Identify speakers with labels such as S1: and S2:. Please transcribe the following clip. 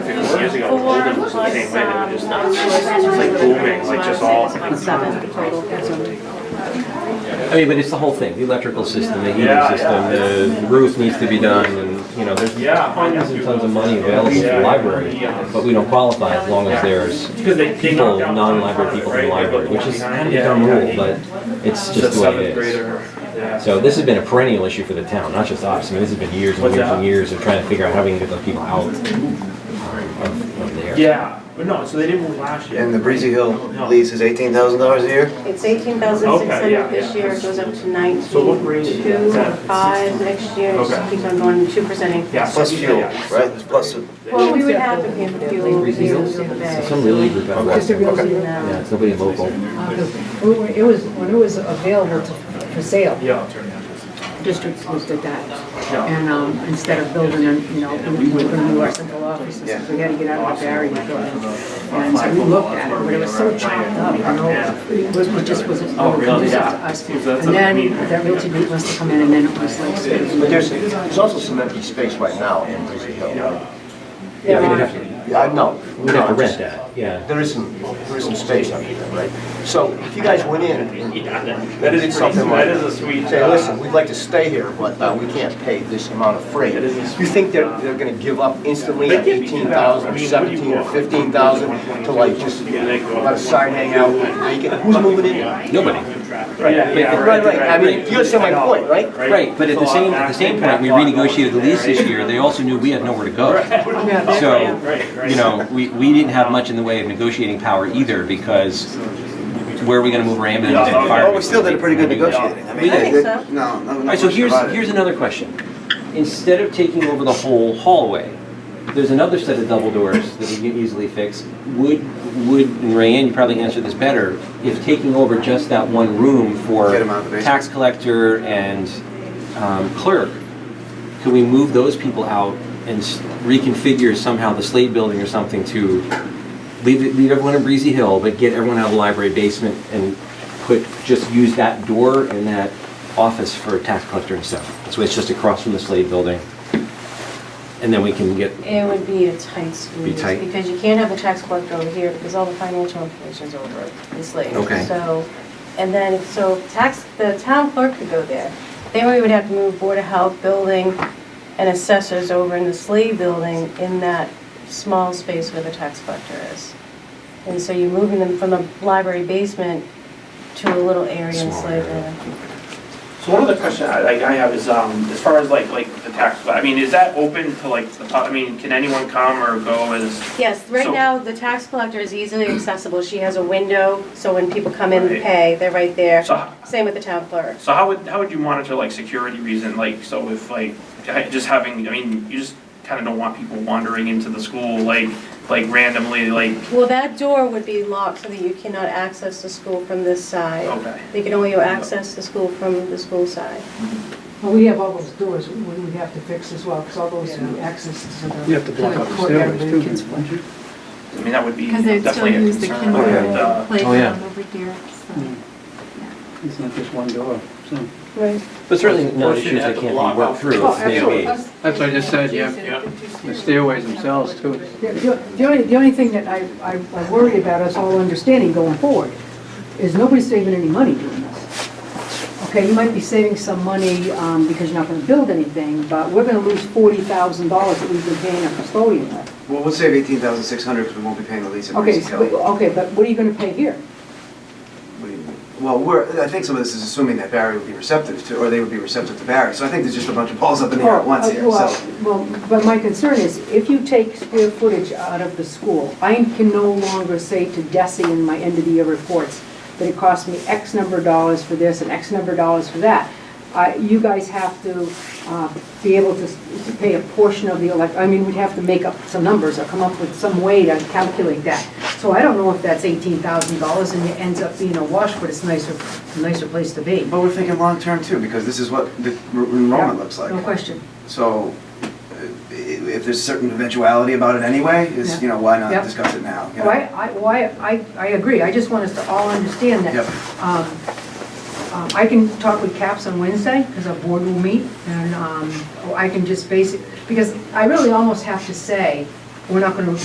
S1: years ago, Oldham was the same way, they were just, it's like booming, like just all.
S2: Seven total consumed.
S3: I mean, but it's the whole thing, the electrical system, the heating
S1: Yeah,
S3: system, the roof needs to be done, and, you know, there's
S1: Yeah.
S3: tons and tons of money available to the library, but we don't qualify as long as there's
S1: Because they, they
S3: people,
S1: knocked down.
S3: non-library people in the library, which is kind of
S1: Yeah,
S3: become
S1: yeah.
S3: rule, but it's just the way it is. So this has been a perennial issue for the town, not just us, I mean, this has been years and
S1: What's
S3: years and
S1: that?
S3: years of trying to figure out how we can get those people out um, of of there.
S1: Yeah, but no, so they didn't move last year.
S4: And the Breezy Hill lease is eighteen thousand dollars a year?
S2: It's eighteen thousand six
S1: Okay, yeah,
S2: hundred this
S1: yeah.
S2: year, it goes up to
S1: So what
S2: nineteen,
S1: grade is
S2: two,
S1: that?
S2: five next year, it
S1: Okay.
S2: just keeps on going, two percent increase.
S1: Yeah.
S4: Plus
S1: yeah,
S4: fuel,
S1: yeah.
S4: right? There's plus,
S2: Well, we would have to pay for fuel,
S3: Breezy Hills?
S2: dues in the
S3: It's
S2: bay.
S3: Some really group out west.
S5: Just a real deal.
S3: Yeah, it's nobody local.
S5: Uh, 'cause we were- It was, when it was available to- for sale,
S1: Yeah, I'll turn it on.
S5: districts looked at that. And um, instead of building, an- you know, we were going to do our central offices,
S4: Yeah.
S5: we had to get out of the barrier building. And so we looked at it, but it was so chopped up, you know, it was- it just wasn't
S1: Oh, really?
S5: conducive to
S1: Yeah.
S5: us.
S1: Is that
S5: And
S1: something-
S5: then that realty group must have come in and then it was like.
S4: but there's, there's also some empty space right now in Breezy Hill.
S3: Yeah, we'd have to,
S4: Yeah, I know.
S3: we'd have to
S4: No,
S3: rent
S4: just-
S3: that, yeah.
S4: There is some, there is some space under there, right? So if you guys went in and
S1: That is
S4: did
S1: pretty
S4: something
S1: sweet.
S4: like.
S1: That is a sweet,
S4: Say,
S1: uh,
S4: listen, we'd like to stay here, but uh, we can't pay this amount of freight.
S1: That is a sweet,
S4: You think they're, they're gonna give up instantly
S1: They
S4: at
S1: can't be
S4: eighteen thousand
S1: I
S4: or
S1: mean,
S4: seventeen or
S1: what do you-
S4: fifteen thousand to like just let a sign hang out, make it, who's moving in?
S3: Nobody.
S1: Yeah, yeah,
S4: Right, right, I mean, you understand my point, right?
S3: Right, but at the same, at the same point, we renegotiated the lease this year, they also knew we had nowhere to go. So, you know, we, we didn't have much in the way of negotiating power either, because where are we gonna move our ambulance and fire?
S4: Well, we still did a pretty good negotiating. I mean,
S3: I think
S4: they-
S2: so.
S4: No, no,
S3: All right, so here's, here's another question. Instead of taking over the whole hallway, there's another set of double doors that we can easily fix. Would, would, and Rayanne, you probably answer this better, if taking over just that one room for
S4: Get 'em out of the basement.
S3: tax collector and um, clerk, could we move those people out and s- reconfigure somehow the Slade Building or something to leave, it- leave everyone in Breezy Hill, but get everyone out of the library basement and put, just use that door and that office for tax collector and stuff. So it's just across from the Slade Building. And then we can get,
S2: It would be a tight squeeze.
S3: tight?
S2: Because you can't have the tax collector over here because all the financial information's over in Slade.
S3: Okay.
S2: So, and then, if- so tax, the town clerk could go there. Then we would have to move Board of Health building and assessors over in the Slade building in that small space where the tax collector is. And so you're moving them from the library basement to a little area in
S3: Small
S2: Slade
S3: area.
S2: building.
S6: So one other question I, like, I have is, um, as far as like, like the tax, I mean, is that open to like, the pub- I mean, can anyone come or go as?
S2: Yes, right
S6: So-
S2: now, the tax collector is easily accessible. She has a window, so when people come in and
S6: Right.
S2: pay, they're right there.
S6: So-
S2: Same with the town clerk.
S6: So how would, how would you monitor like security reason, like, so if like, I- just having, I mean, you just kinda don't want people wandering into the school, like, like randomly, like,
S2: Well, that door would be locked so that you cannot access the school from this side.
S6: okay.
S2: They can only access the school from the school side.
S5: Well, we have all those doors we we have to fix as well, because all those access to the. You have to block out the stairways too.
S6: I mean, that would be
S7: Because they'd still
S6: definitely a
S7: use the
S6: concern.
S4: kindergarten.
S6: Uh,
S7: kindergarten playground
S3: yeah.
S7: over here, so.
S8: It's not just one door, so.
S2: Right.
S3: but certainly not issues that can't be worked
S5: Oh,
S3: through. if they be-
S8: That's what I just said, yeah, yeah. the stairways themselves too.
S5: The- The the only, the only thing that I, I I worry about us all understanding going forward is nobody's saving any money doing this. Okay, you might be saving some money um, because you're not going to build anything, but we're going to lose forty thousand dollars that we've been paying a custodian with.
S9: Well, we'll save eighteen thousand six hundred because we won't be paying the lease at
S5: Okay,
S9: Breezy
S5: so-
S9: Hill.
S5: okay, but what are you going to pay here?
S9: What do you mean? Well, we're, I think some of this is assuming that Barry would be receptive to, or they would be receptive to Barry. So I think there's just a bunch of balls up in the air at once here,
S5: Oh, uh, Well,
S9: so.
S5: Well, but my concern is, if you take square footage out of the school, I can no longer say to Desi in my end-of-the-year reports that it cost me X number of dollars for this and X number of dollars for that. I- You guys have to uh, be able to s- to pay a portion of the elect, I mean, we'd have to make up some numbers or come up with some way to calculate that. So I don't know if that's eighteen thousand dollars and it ends up being a wash, but it's nicer, a nicer place to be.
S9: But we're thinking long-term too, because this is what the re- enrollment looks like.
S5: No question.
S9: So uh, i- if there's certain eventuality about it anyway,
S5: Yeah.
S9: is, you know, why not
S5: Yeah.
S9: discuss it now? you know?
S5: Why, I, why, I, I agree, I just want us to all understand that.
S9: Yep.
S5: Um, um, I can talk with CAPS on Wednesday, because our board will meet, and um, I can just basic, because I really almost have to say, we're not gonna